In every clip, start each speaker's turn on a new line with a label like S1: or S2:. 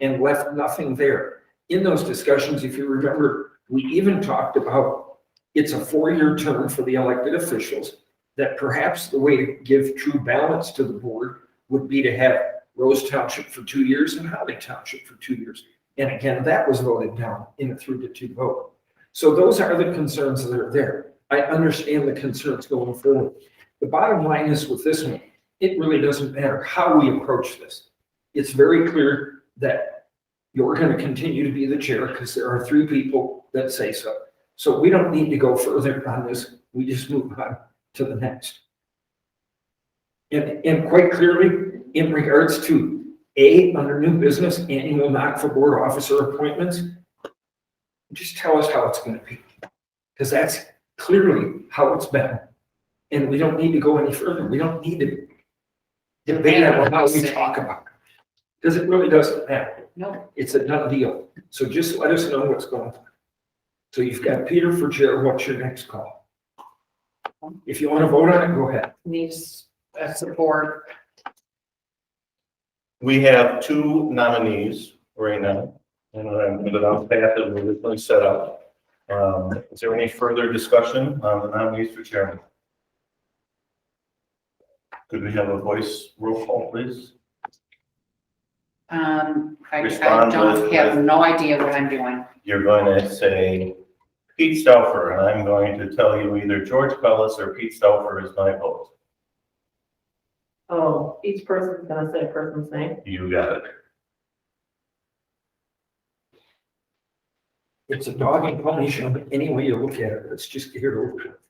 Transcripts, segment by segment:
S1: and left nothing there. In those discussions, if you remember, we even talked about it's a four-year term for the elected officials, that perhaps the way to give true balance to the board would be to have Rose Township for two years and Holly Township for two years. And again, that was voted down in a three to two vote. So those are the concerns that are there. I understand the concerns going forward. The bottom line is with this one, it really doesn't matter how we approach this. It's very clear that you're going to continue to be the chair because there are three people that say so. So we don't need to go further on this. We just move on to the next. And, and quite clearly, in regards to A, under new business, annual knock for board officer appointments, just tell us how it's going to be. Because that's clearly how it's been. And we don't need to go any further. We don't need to debate about how we talk about it. Because it really doesn't matter.
S2: No.
S1: It's a done deal. So just let us know what's going on. So you've got Peter for chair. What's your next call? If you want to vote on it, go ahead.
S2: Needs uh, support.
S3: We have two nominees right now, and I'm going to path that we originally set up. Um, Is there any further discussion on the nominees for chairman? Could we have a voice roll call, please?
S2: Um, I, I
S3: Respond
S2: don't
S3: with-
S2: have no idea what I'm doing.
S3: You're going to say Pete Stauffer, and I'm going to tell you either George Pellis or Pete Stauffer is my vote.
S4: Oh, each person's gonna say a person's name.
S3: You got it.
S1: It's a dog and pony show, but any way you look at it, it's just here to look.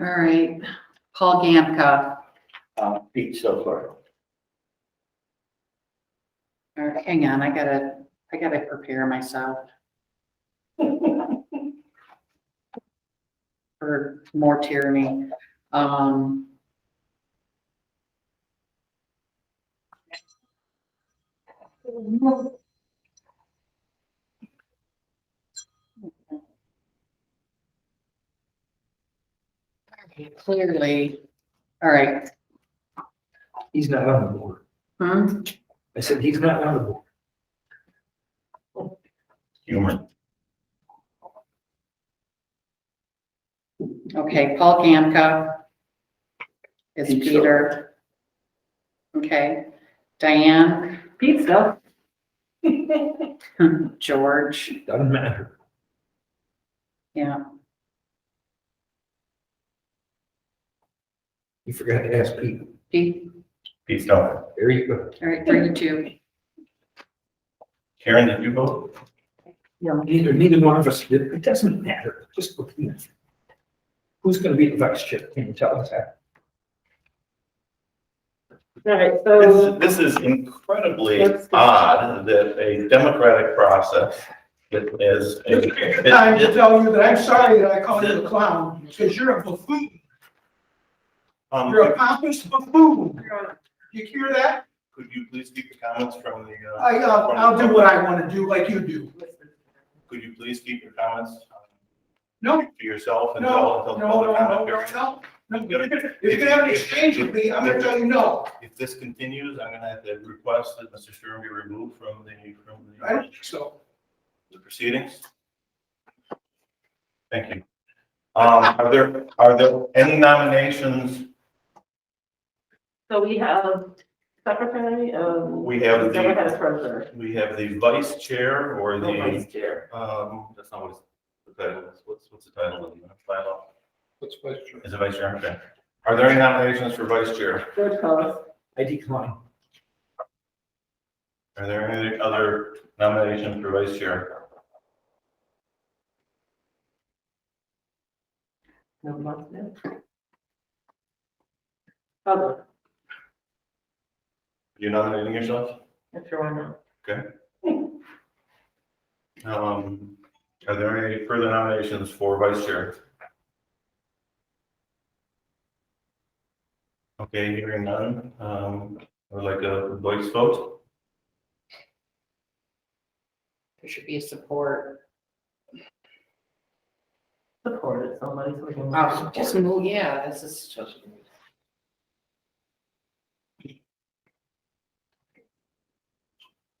S2: All right, Paul Gamka,
S3: Uh, Pete Stauffer.
S2: All right, hang on, I gotta, I gotta prepare myself. For more tyranny, um. Clearly, all right,
S1: He's not on the board.
S2: hmm,
S1: I said, he's not on the board.
S3: Humor.
S2: okay, Paul Gamka. Is
S1: Think so.
S2: Peter. Okay, Diane,
S4: Pete Stuff.
S2: George.
S1: Doesn't matter.
S2: Yeah,
S1: You forgot to ask Pete.
S2: Pete,
S3: Pete Stauffer.
S1: There you go.
S2: all right, three to two.
S3: Karen, did you vote?
S1: Neither, neither one of us did. It doesn't matter. Just look. at it. Who's going to be the vice chair? Can you tell us that?
S4: Alright, so,
S3: This, this is incredibly
S4: Let's go.
S3: odd that a democratic process that is.
S5: Mr. Chair, I'm to tell you that I'm sorry that I called you a clown, because you're a buffoon.
S3: Um,
S5: You're a pompous buffoon. You hear that?
S3: Could you please keep the comments from the? uh,
S5: I, uh,
S3: from-
S5: I'll do what I want to do like you do.
S3: Could you please keep your comments um,
S5: No,
S3: to yourself and
S5: no, no,
S3: until
S5: no,
S3: until the
S5: no, no,
S3: comment period?
S5: no, no. If you're gonna have an exchange with me, I'm gonna tell you no.
S3: If this continues, I'm gonna have to request that Mr. Stern be removed from the, from
S5: I don't
S3: the-
S5: think so.
S3: the proceedings. Thank you. Um, are there, are there any nominations
S4: So we have secretary, um.
S3: We have the-
S4: Never had a treasurer.
S3: We have the vice chair or
S4: No vice
S3: the,
S4: chair.
S3: um, that's not what it's, the title is, what's, what's the title of the bylaw?
S5: What's question?
S3: Is it vice chair? Okay. Are there any nominations for vice chair?
S4: George Collins.
S1: I decline.
S3: Are there any other nominations for vice chair?
S4: No, not now. Hubble.
S3: You nominating yourself?
S4: That's your one.
S3: Um, are there any further nominations for vice chair? Okay, hearing none, um, I would like a voice vote.
S2: There should be a support.
S4: Support it, somebody. so we can-
S2: Oh, just move, Um, yeah, this is just.